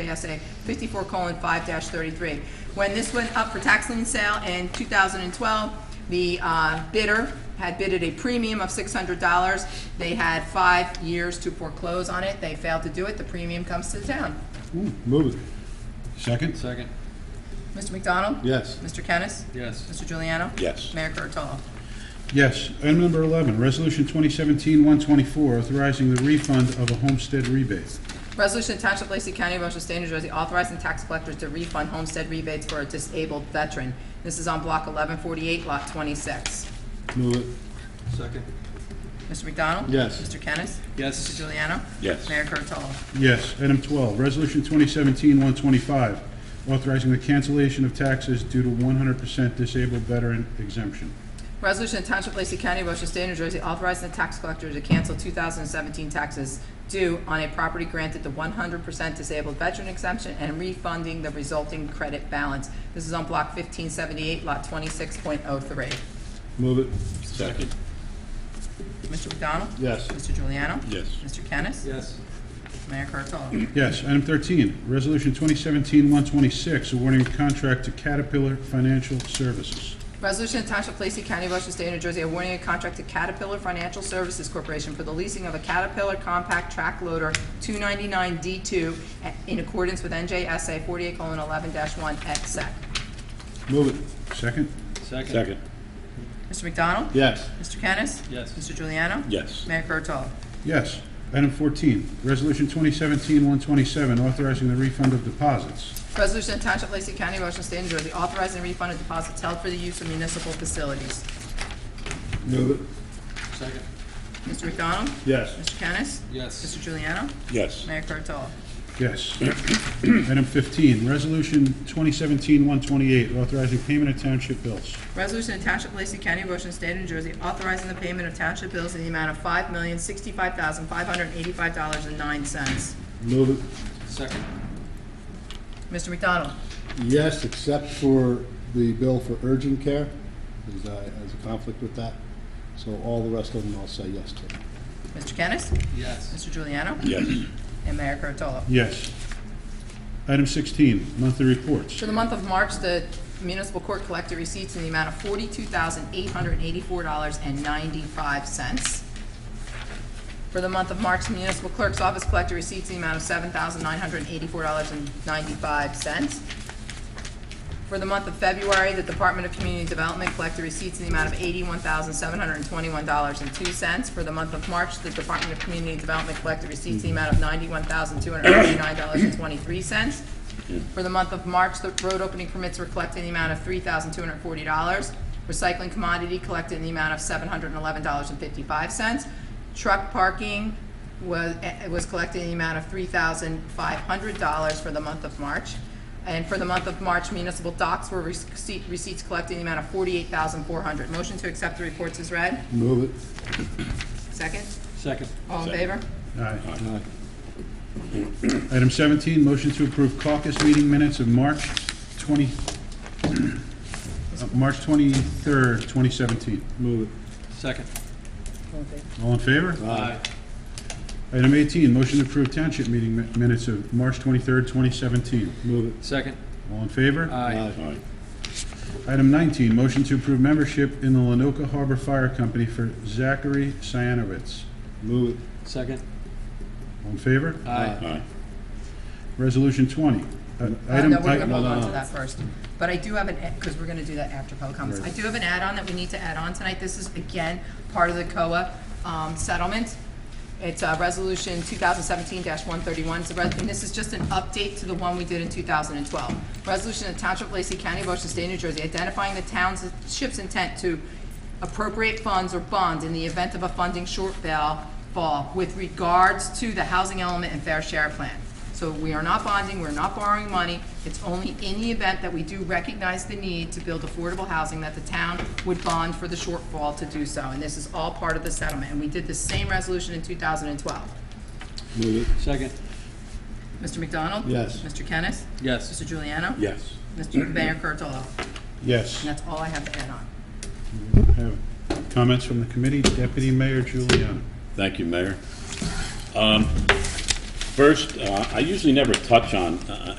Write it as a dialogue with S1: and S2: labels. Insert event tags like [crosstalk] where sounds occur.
S1: JSA 54:5-33. When this went up for tax lien sale in 2012, the uh, bidder had bidded a premium of $600. They had five years to foreclose on it. They failed to do it. The premium comes to the town.
S2: Move it. Second?
S3: Second,
S1: Mr. McDonald?
S2: Yes.
S1: Mr. Kennis?
S3: yes.
S1: Mr. Juliano?
S2: Yes.
S1: Mayor Kurtolo?
S2: Yes. Item number 11, Resolution 2017-124, authorizing the refund of a homestead rebate.
S1: Resolution to Township of Lacey County, Ocean State, New Jersey, authorizing tax collectors to refund homestead rebates for a disabled veteran. This is on Block 1148, Lot 26.
S2: Move it.
S3: Second,
S1: Mr. McDonald?
S2: Yes.
S1: Mr. Kennis? Mr.
S3: yes.
S1: Juliano?
S2: Yes.
S1: Mayor Kurtolo?
S2: Yes. Item 12, Resolution 2017-125, authorizing the cancellation of taxes due to 100% disabled veteran exemption.
S1: Resolution to Township of Lacey County, Ocean State, New Jersey, authorizing the tax collector to cancel 2017 taxes due on a property granted the 100% disabled veteran exemption and refunding the resulting credit balance. This is on Block 1578, Lot 26.03.
S2: Move it.
S3: Second,
S1: Mr. McDonald?
S2: Yes.
S1: Mr. Juliano?
S2: Yes.
S1: Mr. Kennis?
S3: yes.
S1: Mayor Kurtolo?
S2: Yes. Item 13, Resolution 2017-126, awarding a contract to Caterpillar Financial Services.
S1: Resolution of Township of Lacey County, Ocean State, New Jersey, awarding a contract to Caterpillar Financial Services Corporation for the leasing of a Caterpillar Compact Track Loader 299D2 a- in accordance with NJSA 48:11-1 et sec.
S2: Move it. Second?
S3: Second,
S1: Mr. McDonald?
S2: Yes.
S1: Mr. Kennis?
S3: Yes.
S1: Mr. Juliano?
S2: Yes.
S1: Mayor Kurtolo?
S2: Yes. Item 14, Resolution 2017-127, authorizing the refund of deposits.
S1: Resolution of Township of Lacey County, Ocean State, New Jersey, authorizing refund of deposits held for the use of municipal facilities.
S2: Move it.
S3: second,
S1: Mr. McDonald?
S2: Yes.
S1: Mr. Kennis?
S3: yes.
S1: Mr. Juliano?
S2: Yes.
S1: Mayor Kurtolo?
S2: Yes. [clears throat] Item 15, Resolution 2017-128, authorizing payment of township bills.
S1: Resolution to Township of Lacey County, Ocean State, New Jersey, authorizing the payment of township bills in the amount of five million, sixty-five thousand, five hundred and eighty-five dollars and nine cents.
S4: Move
S3: Second,
S1: Mr. McDonald?
S4: it, yes, except for the bill for urgent care, because I, there's a conflict with that. So all the rest of them I'll say yes to.
S1: Mr. Kennis?
S3: yes.
S1: Mr. Juliano?
S2: Yes.
S1: And Mayor Kurtolo?
S2: Yes. Item 16, monthly reports.
S1: For the month of March, the municipal court collected receipts in the amount of forty-two thousand, eight hundred and eighty-four dollars and ninety-five cents. For the month of March, the municipal clerk's office collected receipts in the amount of seven thousand, nine hundred and eighty-four dollars and ninety-five cents. For the month of February, the Department of Community Development collected receipts in the amount of eighty-one thousand, seven hundred and twenty-one dollars and two cents. For the month of March, the Department of Community Development collected receipts in the amount of ninety-one thousand, two hundred and fifty-nine dollars and twenty-three cents. For the month of March, the road opening permits were collected in the amount of three thousand, two hundred and forty dollars. Recycling commodity collected in the amount of seven hundred and eleven dollars and fifty-five cents. Truck parking was, eh, was collected in the amount of three thousand, five hundred dollars for the month of March. And for the month of March, municipal docs were receipt- receipts collected in the amount of forty-eight thousand four hundred. Motion to accept the reports is read.
S4: Move it,
S1: Second.
S3: Second,
S1: All in favor?
S2: Aye.
S4: aye,
S2: Item 17, motion to approve caucus meeting minutes of March 20, [clears throat] uh, March 23rd, 2017.
S4: move it,
S3: second.
S1: All in favor.
S2: All in favor?
S3: Aye.
S2: Item 18, motion to approve township meeting mi- minutes of March 23rd, 2017.
S4: move it,
S3: Second,
S2: All in favor?
S3: aye.
S4: aye,
S2: Item 19, motion to approve membership in the Lenoka Harbor Fire Company for Zachary Cyanowitz.
S4: move
S3: Second,
S2: All in favor?
S3: aye.
S2: Resolution 20. Uh,
S1: Uh,
S2: item-
S1: No, we're
S2: i-
S1: gonna hold on to that first. But I do have an, because we're gonna do that after public comments. I do have an add-on that we need to add on tonight. This is, again, part of the COA um, settlement. It's uh, Resolution 2017-131, It's a res- and this is just an update to the one we did in 2012. Resolution of Township of Lacey County, Ocean State, New Jersey, identifying the township's intent to appropriate funds or bonds in the event of a funding shortfall with regards to the housing element and fair share plan. So we are not bonding, we're not borrowing money. It's only in the event that we do recognize the need to build affordable housing that the town would bond for the shortfall to do so. And this is all part of the settlement, and we did the same resolution in 2012.
S4: it, move
S3: Second,
S1: Mr. McDonald?
S4: Yes.
S1: Mr. Kennis?
S3: yes.
S1: Mr. Juliano?
S4: Yes.
S1: Mr. Mayor Kurtolo?
S2: Yes.
S1: And that's all I have to add on.
S2: Have Comments from the committee? Deputy Mayor Giuliano.
S5: Thank you, Mayor. Um,
S6: First, uh, I usually never touch on uh,